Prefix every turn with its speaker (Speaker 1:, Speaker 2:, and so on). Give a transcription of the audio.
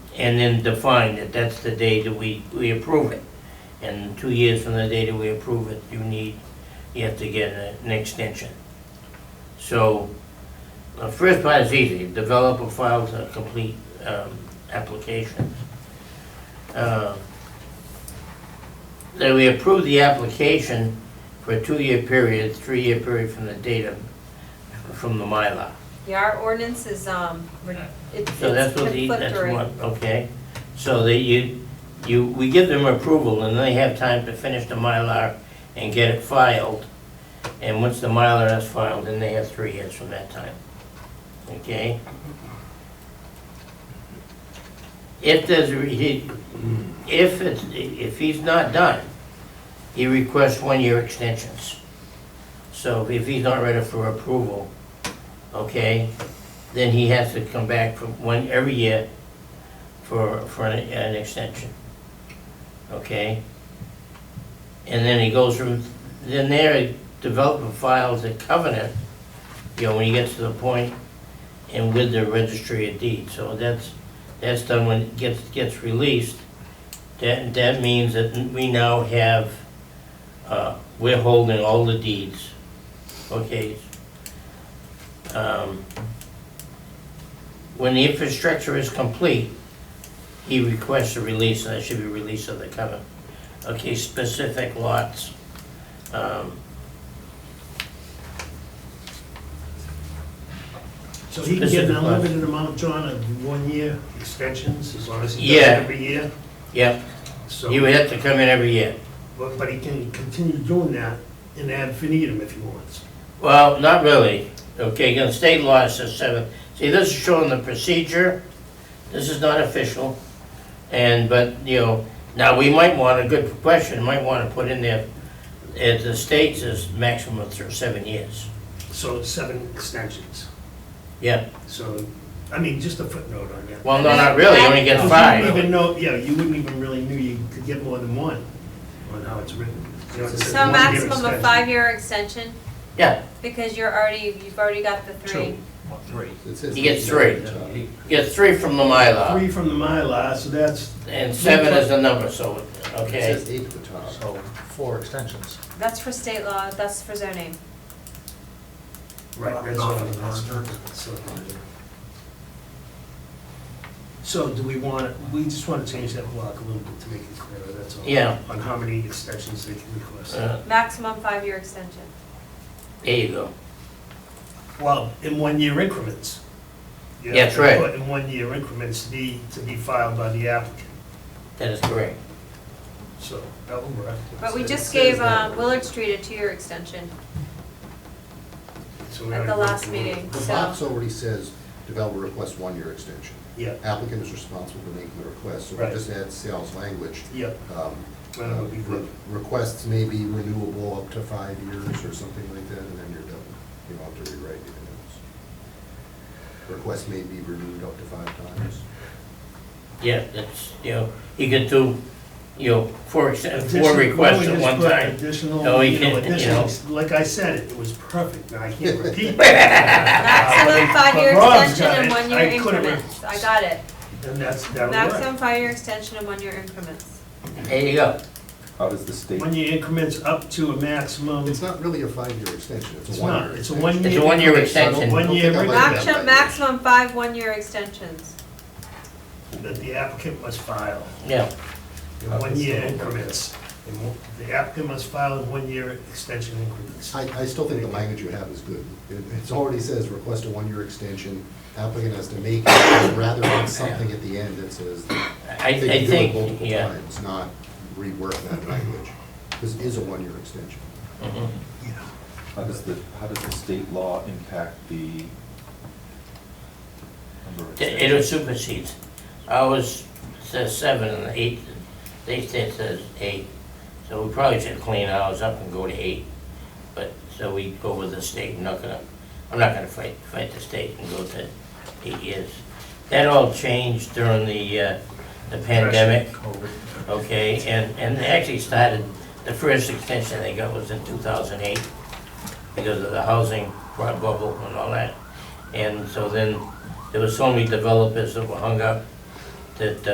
Speaker 1: and then define that that's the day that we, we approve it. And two years from the day that we approve it, you need, you have to get a- an extension. So, the first part is easy, developer files a complete, um, application. Uh, Then we approve the application for a two-year period, three-year period from the date of, from the Mylar.
Speaker 2: Yeah, our ordinance is, um, re- it- it's
Speaker 1: So that's what the, that's
Speaker 2: conflictory.
Speaker 1: what, okay. So that you, you, we give them approval and they have time to finish the Mylar and get it filed. And once the Mylar is filed, then they have three years from that time. Okay? If there's, a re- he, if it's, if he's not done, he requests one-year extensions. So if he's not ready for approval, okay, then he has to come back for one, every year for, for an, an extension. Okay? And then he goes through, then there, developer files a covenant, you know, when he gets to the point, and with the registry of deeds, so that's, that's done when it gets, gets released. That, that means that we now have, uh, we're holding all the deeds, okay? Um, when the infrastructure is complete, he requests a release, and that should be release of the covenant. Okay, specific lots. Um,
Speaker 3: So he can get an unlimited amount, John, of one-year extensions, as long as he does
Speaker 1: Yeah.
Speaker 3: it every year?
Speaker 1: Yep,
Speaker 3: So,
Speaker 1: he would have to come in every year.
Speaker 3: but but he can continue doing that and add finitum if he wants.
Speaker 1: Well, not really. Okay, again, state law says seven. See, this is showing the procedure. This is not official. And, but, you know, now we might want, a good question, might want to put in there, if the state says maximum of th- seven years.
Speaker 3: So seven extensions.
Speaker 1: Yeah,
Speaker 3: So, I mean, just a footnote on that.
Speaker 1: well, no, not really, you only get five.
Speaker 3: You wouldn't even know, yeah, you wouldn't even really knew you could get more than one on how it's written. You know, it says
Speaker 2: So
Speaker 3: one-year
Speaker 2: maximum of
Speaker 3: extension.
Speaker 2: five-year extension,
Speaker 1: Yeah,
Speaker 2: because you're already, you've already got the three.
Speaker 3: Three.
Speaker 1: You get three. you get three from the Mylar,
Speaker 3: Three from the Mylar, so that's,
Speaker 1: and seven is the number, so,
Speaker 4: It
Speaker 1: okay?
Speaker 4: says eight at the top.
Speaker 5: So, four extensions.
Speaker 2: That's for state law, that's for zoning.
Speaker 3: right, that's
Speaker 5: Not
Speaker 3: what
Speaker 5: for
Speaker 3: I'm
Speaker 5: the merger.
Speaker 3: So- So do we want, we just want to change that block a little bit to make it clearer, that's all.
Speaker 1: Yeah.
Speaker 3: On how many extensions they can request.
Speaker 1: Uh,
Speaker 2: Maximum five-year extension.
Speaker 1: There you go.
Speaker 3: Well, in one-year increments. You
Speaker 1: That's
Speaker 3: have to
Speaker 1: right.
Speaker 3: put In one-year increments to be, to be filed by the applicant,
Speaker 1: That is correct.
Speaker 3: so that will work.
Speaker 2: But we
Speaker 3: It
Speaker 2: just
Speaker 3: says
Speaker 2: gave
Speaker 3: that.
Speaker 2: um, Willard Street a two-year extension
Speaker 3: So we
Speaker 2: at
Speaker 3: already
Speaker 2: the
Speaker 3: went
Speaker 2: last
Speaker 3: through it.
Speaker 2: meeting,
Speaker 4: The
Speaker 2: so.
Speaker 4: box already says developer requests one-year extension.
Speaker 3: Yeah,
Speaker 4: Applicant is responsible for making the request, so
Speaker 3: Right.
Speaker 4: we just add sales language.
Speaker 3: yeah,
Speaker 4: Um,
Speaker 3: that would be
Speaker 4: uh,
Speaker 3: good.
Speaker 4: re- Requests may be renewable up to five years or something like that, and then you're done. You don't have to rewrite anything else. Requests may be renewed up to five times.
Speaker 1: Yeah, that's, you know, he could do, you know, four, ex-
Speaker 3: Additional-
Speaker 1: four requests
Speaker 3: why
Speaker 1: at
Speaker 3: don't we
Speaker 1: one
Speaker 3: just put
Speaker 1: time. No,
Speaker 3: Additional,
Speaker 1: we
Speaker 3: you know,
Speaker 1: can't, you know.
Speaker 3: additional, like I said, it was perfect, and I can't repeat.
Speaker 2: Maximum
Speaker 3: Ah, But
Speaker 2: five-year
Speaker 3: Rob's
Speaker 2: extension
Speaker 3: got
Speaker 2: and
Speaker 3: it.
Speaker 2: one-year
Speaker 3: I could've-
Speaker 2: increments. I got it.
Speaker 3: And that's, that'll work.
Speaker 2: Maximum five-year extension and one-year increments.
Speaker 1: There you go.
Speaker 6: How does the state,
Speaker 3: One-year increments up to a maximum,
Speaker 4: It's not really a five-year extension, it's
Speaker 3: It's
Speaker 4: a
Speaker 3: not.
Speaker 4: one-year
Speaker 3: It's a
Speaker 4: extension.
Speaker 3: one-year
Speaker 1: It's a one-year
Speaker 4: So I don't-
Speaker 1: extension.
Speaker 4: don't
Speaker 3: One-year
Speaker 4: think I like that
Speaker 2: Maximum,
Speaker 4: language.
Speaker 2: maximum five one-year extensions.
Speaker 3: that the applicant must file
Speaker 1: Yeah,
Speaker 3: in one-year increments. And mo- The applicant must file in one-year extension increments.
Speaker 4: I, I still think the language you have is good. It it's already says, request a one-year extension, applicant has to make, it, rather than something at the end that says,
Speaker 1: I, I
Speaker 4: they can do it
Speaker 1: think,
Speaker 4: multiple
Speaker 1: yeah.
Speaker 4: times, not rework that language. This is a one-year extension.
Speaker 1: mhm.
Speaker 6: how does the, how does the state law impact the number of
Speaker 1: It- It'll
Speaker 6: extensions?
Speaker 1: supersede. Ours says seven and eight, they said says eight. So we probably should clean ours up and go to eight. But, so we go with the state, I'm not gonna, I'm not gonna fight, fight the state and go to eight years. That all changed during the, uh, the pandemic, okay? And, and they actually started, the first extension they got was in two thousand eight because of the housing bubble and all that. And so then there were so many developers that were hung up that uh,